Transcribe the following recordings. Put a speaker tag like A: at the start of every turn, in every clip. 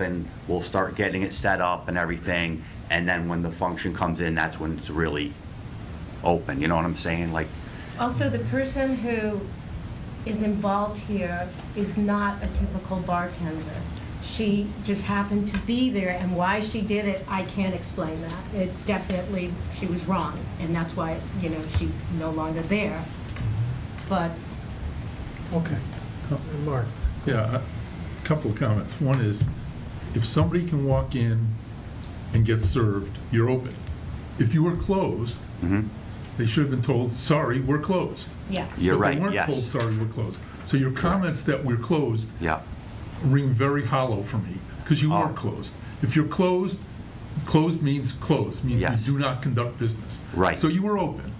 A: and we'll start getting it set up and everything. And then when the function comes in, that's when it's really open, you know what I'm saying? Like,
B: Also, the person who is involved here is not a typical bartender. She just happened to be there, and why she did it, I can't explain that. It's definitely, she was wrong, and that's why, you know, she's no longer there. But
C: Okay. Mark?
D: Yeah, a couple of comments. One is, if somebody can walk in and get served, you're open. If you were closed,
A: mhm.
D: they should have been told, sorry, we're closed.
B: yes,
A: You're right,
D: But they
A: yes.
D: weren't told, sorry, we're closed. So your comments that we're closed
A: yeah,
D: ring very hollow for me, because you
A: Oh.
D: weren't closed. If you're closed, closed means closed, means
A: Yes.
D: you do not conduct business.
A: Right.
D: So you were open.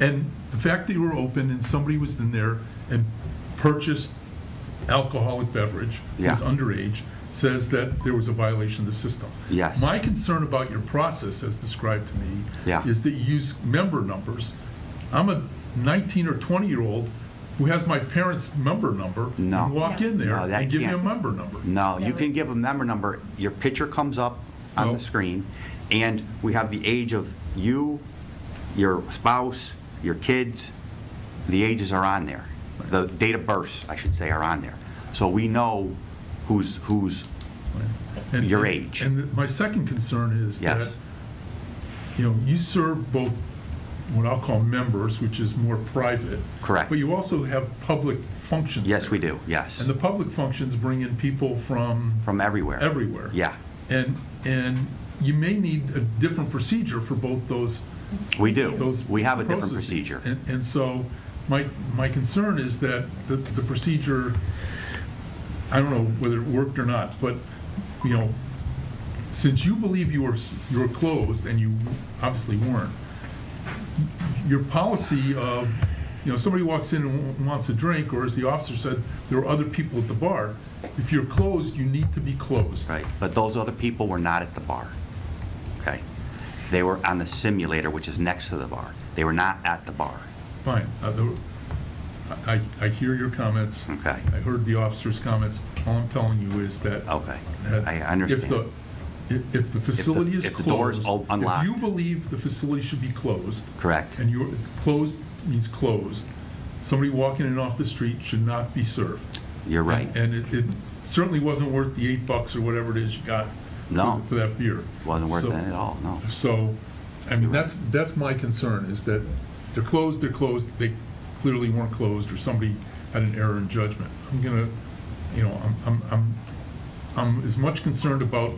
D: And the fact that you were open and somebody was in there and purchased alcoholic beverage, who's
A: Yeah.
D: underage, says that there was a violation of the system.
A: Yes.
D: My concern about your process, as described to me,
A: Yeah.
D: is that you use member numbers. I'm a 19 or 20-year-old who has my parents' member number.
A: No.
D: You walk in there
A: No, that
D: and give me a
A: can't-
D: member number.
A: no, you
B: No.
A: can give a member number, your picture comes up on the
D: Nope.
A: screen, and we have the age of you, your spouse, your kids, the ages are on there. The date of births, I should say, are on there. So we know who's, who's,
D: And-
A: Your
D: and-
A: age.
D: And my second concern is that,
A: yes,
D: you know, you serve both what I'll call members, which is more private.
A: Correct.
D: But you also have public functions.
A: yes,
D: there.
A: we do, yes,
D: And the public functions bring in people from
A: from everywhere.
D: everywhere.
A: Yeah,
D: And, and you may need a different procedure for both those
A: we do.
D: those
A: We have a different
D: processes.
A: procedure.
D: And, and so, my, my concern is that the, the procedure, I don't know whether it worked or not, but, you know, since you believe you were, s- you were closed, and you obviously weren't, your policy of, you know, somebody walks in and w- wants a drink, or as the officer said, there were other people at the bar, if you're closed, you need to be closed.
A: Right, but those other people were not at the bar, okay? They were on the simulator, which is next to the bar. They were not at the bar,
D: Fine. Uh, the- I, I hear your comments.
A: Okay.
D: I heard the officer's comments. All I'm telling you is that.
A: okay?
D: that
A: I
D: If the,
A: understand.
D: if- if the facility is
A: if the door is
D: closed.
A: all unlocked.
D: If you believe the facility should be closed,
A: Correct,
D: and you're, closed means closed, somebody walking in off the street should not be served.
A: you're right.
D: And it it certainly wasn't worth the eight bucks or whatever it is you got. for-
A: No.
D: For that beer.
A: Wasn't worth
D: So-
A: it at all, no.
D: so, I mean, that's, that's my concern, is that they're closed, they're closed, they clearly weren't closed, or somebody had an error in judgment. I'm gonna, you know, I'm, I'm, I'm, I'm as much concerned about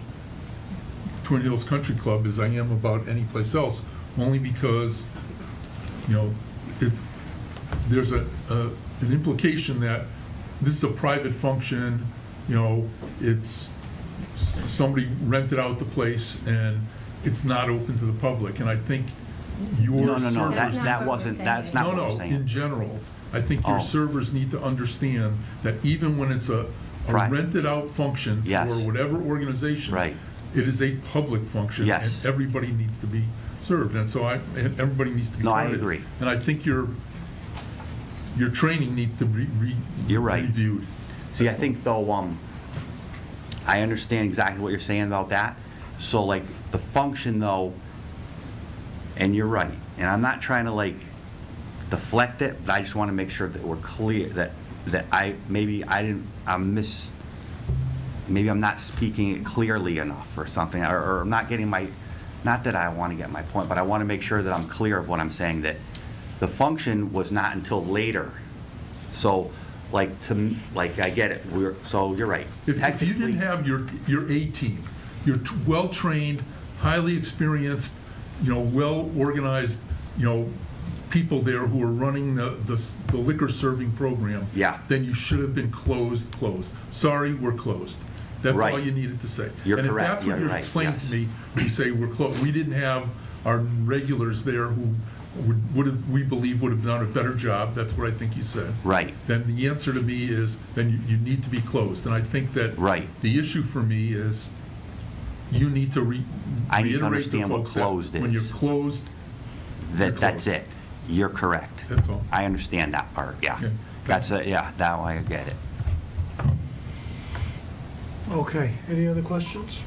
D: Twin Hills Country Club as I am about any place else, only because, you know, it's, there's a, a- an implication that this is a private function, you know, it's, s- somebody rented out the place and it's not open to the public, and I think your.
A: No, no, no,
D: servers-
A: that,
B: That's not
A: that
B: what we're
A: wasn't,
B: saying.
A: that's not what I'm
D: No, no, in
A: saying.
D: general, I think your
A: Oh.
D: servers need to understand that even when it's a a
A: Right.
D: rented-out function
A: Yes.
D: for whatever organization.
A: Right.
D: It is a public function.
A: Yes.
D: And everybody needs to be served, and so I, and everybody needs to be.
A: No, I
D: credited.
A: agree.
D: And I think your, your training needs to be re.
A: You're right.
D: Reviewed.
A: See, I think though, um, I understand exactly what you're saying about that. So like, the function though, and you're right, and I'm not trying to like deflect it, but I just want to make sure that we're clear, that, that I, maybe I didn't, I'm mis, maybe I'm not speaking it clearly enough or something, or, or I'm not getting my, not that I want to get my point, but I want to make sure that I'm clear of what I'm saying, that the function was not until later. So, like, to, m- like, I get it, we're, so you're right.
D: If, if you
A: Technically-
D: didn't have your, your A team, your t- well-trained, highly experienced, you know, well-organized, you know, people there who are running the, the s- the liquor serving program.
A: Yeah.
D: Then you should have been closed, closed. Sorry, we're closed. That's all
A: Right.
D: you needed to say.
A: You're correct.
D: And if that's what
A: You're
D: you're
A: right.
D: explaining
A: Yes.
D: to me, you say we're closed, we didn't have our regulars there who would, would have, we believe would have done a better job, that's what I think you said
A: Right,
D: then the answer to me is, then you, you need to be closed. And I think that.
A: Right.
D: The issue for me is, you need to re.
A: I need to
D: reiterate
A: understand what
D: folks that
A: closed
D: When
A: is.
D: you're closed, You're
A: that, that's
D: closed.
A: it. You're correct.
D: that's all.
A: I understand that part, yeah.
D: Okay.
A: That's, it. yeah, now I get it.
C: Okay, any other questions?